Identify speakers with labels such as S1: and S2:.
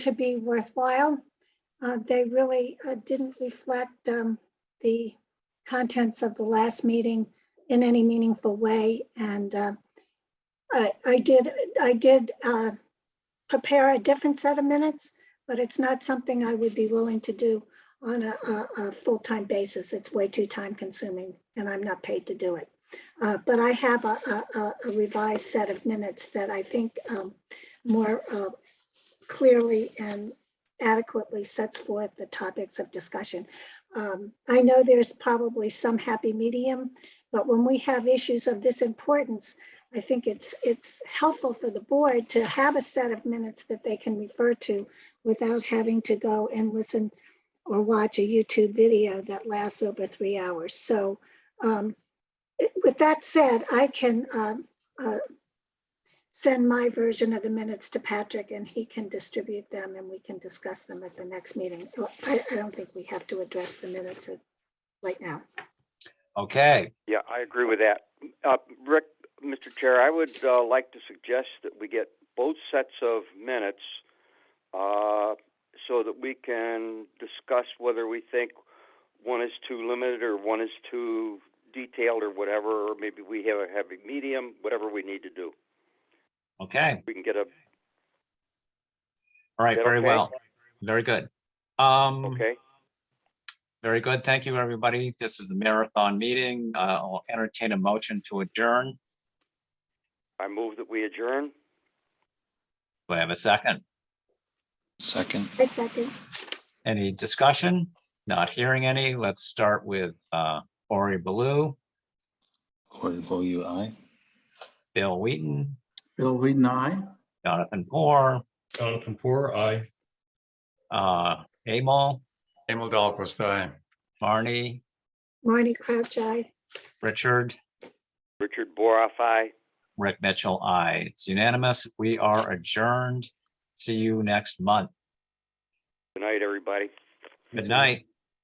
S1: to be worthwhile. Uh, They really uh, didn't reflect um, the contents of the last meeting in any meaningful way. And uh, I I did, I did uh, prepare a different set of minutes, but it's not something I would be willing to do on a, a- a full-time basis. It's way too time-consuming, and I'm not paid to do it. Uh, But I have a a- a- a revised set of minutes that I think um, more uh, clearly and adequately sets forth the topics of discussion. Um, I know there's probably some happy medium, but when we have issues of this importance, I think it's, it's helpful for the board to have a set of minutes that they can refer to without having to go and listen or watch a YouTube video that lasts over three hours. So um, it- with that said, I can um, uh, send my version of the minutes to Patrick and he can distribute them and we can discuss them at the next meeting. I, I don't think we have to address the minutes at- right now.
S2: Okay,
S3: Yeah, I agree with that. Uh, Rick, Mr. Chair, I would uh, like to suggest that we get both sets of minutes uh, so that we can discuss whether we think one is too limited or one is too detailed or whatever, or maybe we have a heavy medium, whatever we need to do.
S2: okay,
S3: We can get a,
S2: all right,
S3: that
S2: very
S3: okay?
S2: well, very good. Um,
S3: okay?
S2: very good, thank you, everybody. This is the marathon meeting. Uh, I'll entertain a motion to adjourn.
S3: I move that we adjourn.
S2: Do I have a second?
S4: Second,
S1: I second.
S2: Any discussion? Not hearing any. Let's start with uh, Ori Baloo,
S4: Cory Boyu, aye.
S2: Bill Wheaton,
S5: Bill Wheaton, aye.
S2: Jonathan Moore,
S6: Jonathan Poor, aye.
S2: uh, Amal,
S7: Emil Dahlquist, aye.
S2: Barney,
S1: Marty Crouch, I.
S2: Richard,
S3: Richard Boroff, aye.
S2: Rick Mitchell, I. It's unanimous. We are adjourned. See you next month.
S3: Good night, everybody.
S2: Good night.